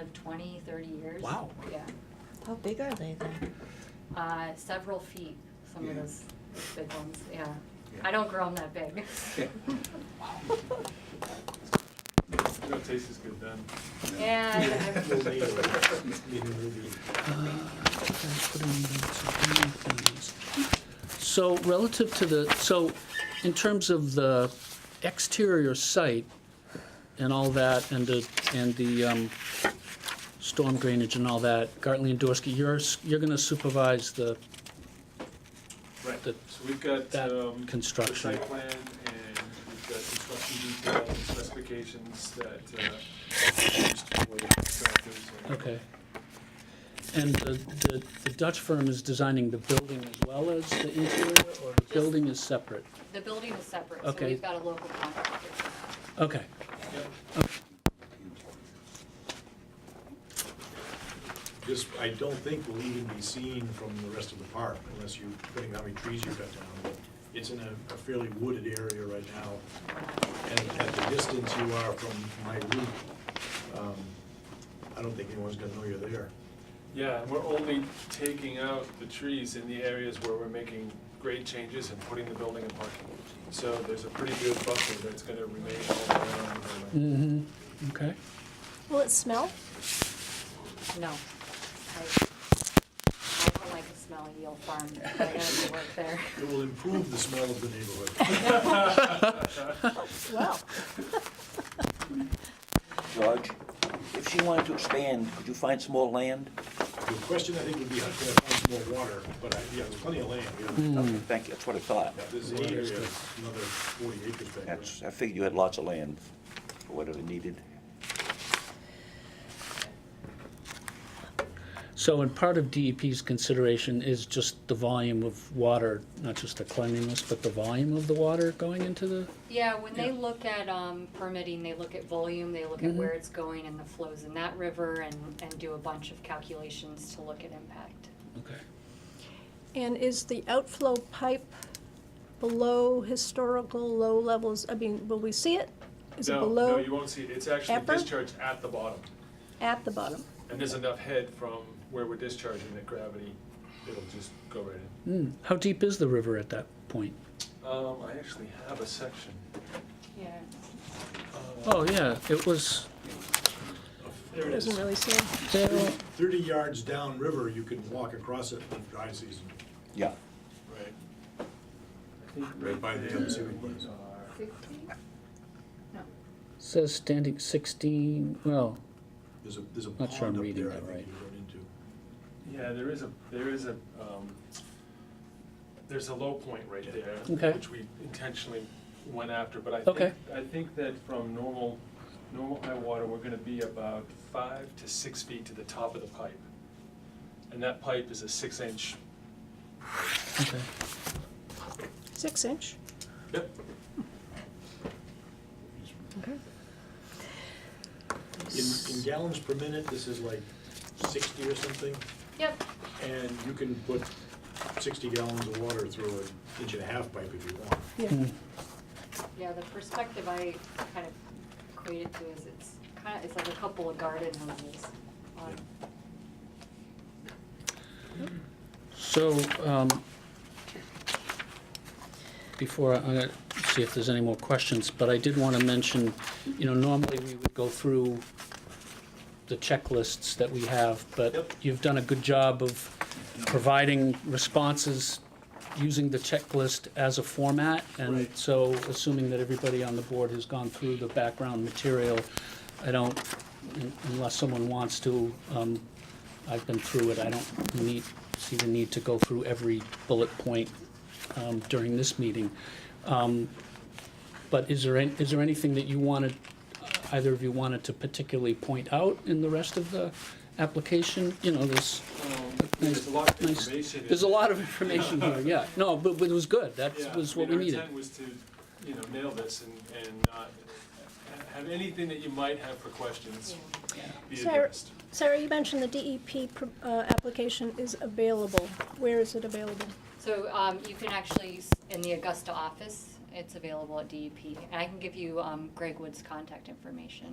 of 20, 30 years. Wow. Yeah, How big are they then? uh, several feet, some of Yeah. those big ones, yeah. Yeah. I don't grow them that big. Yeah. It'll taste as good then. And I'm- So relative to the, so in terms of the exterior site and all that, and the, and the um, storm drainage and all that, Gartley and Dorsky, you're, s- you're gonna supervise the, Right, so The- we've got, that um, construction. The site plan and we've got construction details and specifications that, uh, are used for the contractors. and- okay. And the, the- the Dutch firm is designing the building as well as the interior, or the building is separate? the building is separate, so Okay. we've got a local contractor. Okay, Yep. This, I don't think will even be seen from the rest of the park unless you're putting how many trees you cut down. But It's in a a fairly wooded area right now. And at the distance you are from my roof, um, I don't think anyone's gonna know you're there. Yeah, and we're only taking out the trees in the areas where we're making grade changes and putting the building in parking. So there's a pretty good buffer that's gonna remain all around the building. mm-hmm, okay. Will it smell? No. I I don't like a smelly old farm. I gotta work there. It will improve the smell of the neighborhood. Well, George, if she wanted to expand, could you find some more land? The question I think would be, how can I find some more water? But I, yeah, there's plenty of land, Hmm. yeah. Okay, Thank you, that's what I thought. There's an area, another forty acres back there. That's, I figured you had lots of land, for whatever needed. So, and part of DEP's consideration is just the volume of water, not just the cleanliness, but the volume of the water going into the, Yeah, when they look at um, permitting, they look at volume, they look at Mhm. where it's going and the flows in that river and, and do a bunch of calculations to look at impact. okay. And is the outflow pipe below historical low levels? I mean, will we see it? Is it No, No, below, you won't see it. It's actually Ever? discharged at the bottom. at the bottom? And there's enough head from where we're discharging that gravity, it'll just go right in. Hmm, how deep is the river at that point? Um, I actually have a section. Yeah. Oh, yeah, it was, There it is. Doesn't really seem. there, Thirty yards downriver, you can walk across it in dry season. Yeah. Right. Right by the other swimming place. says standing sixteen, well, There's a, there's a Not sure I'm pond up reading there I that right. think you run into. Yeah, there is a, there is a, um, there's a low point right there. Okay. Which we intentionally went after, but I Okay. think, I think that from normal, normal high water, we're gonna be about five to six feet to the top of the pipe. And that pipe is a six inch. okay. Six inch? Yep. In, in gallons per minute, this is like sixty or something, Yep, and you can put sixty gallons of water through an inch and a half pipe if you want. Yeah. yeah, the perspective I kind of equate it to is it's kind of, it's like a couple of garden hoses Um, on So, um, before, I- I'm gonna see if there's any more questions, but I did wanna mention, you know, normally we would go through the checklists that we have, but Yep. you've done a good job of providing responses using the checklist as a format, and Right. so assuming that everybody on the board has gone through the background material, I don't, un- unless someone wants to, um, I've been through it, I don't need, see the need to go through every bullet point um, during this meeting. Um, But is there, an- is there anything that you wanted, uh, either of you wanted to particularly point out in the rest of the application? You know, there's, Um, There's a lot of Nice. information. in there's a there. lot of information here, yeah. No, but but it was good, that Yeah, was I what mean, we needed. Our intent was to, you know, nail this and, and not ha- have anything that you might have for questions be Sarah- addressed. Sarah, you mentioned the DEP pr- uh, application is available. Where is it available? So um, you can actually, s- in the Augusta E office, it's available at DEP. And I can give you um, Greg Wood's contact information.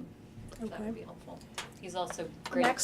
that Okay. would be helpful. He's also great. Max